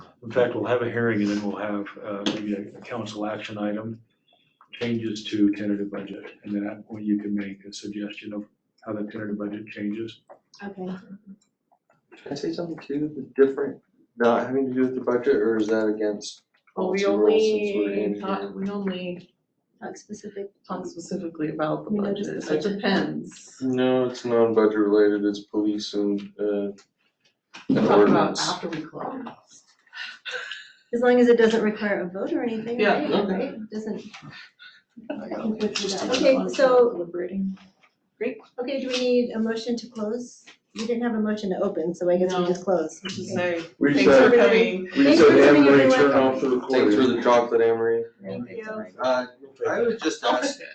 In fact, we'll have a hearing and then we'll have uh, maybe a a council action item, changes to tentative budget. And then at point you can make a suggestion of how the tentative budget changes. Okay, Can I say something too, that's different, not having to do with the budget, or is that against Well, we policy rules since we're in only here? talk, we only talk specific. talk specifically about the We know just budget, the it budget. depends. No, it's non-budget related, it's police and, uh, and Talk about ordinance. after we close. As long as it doesn't require a vote or anything, Yeah, right? okay. Right? It Doesn't. Just a- Okay, so- Deliberating. Okay, do we need a motion to close? We didn't have a motion to open, so I guess we No. just close. Just say, We thanks said, for said- coming. we Thanks said for coming, Anne Marie, everyone. turn off the recording. Thanks for the chocolate, Amory. Thank you. Uh, I would just ask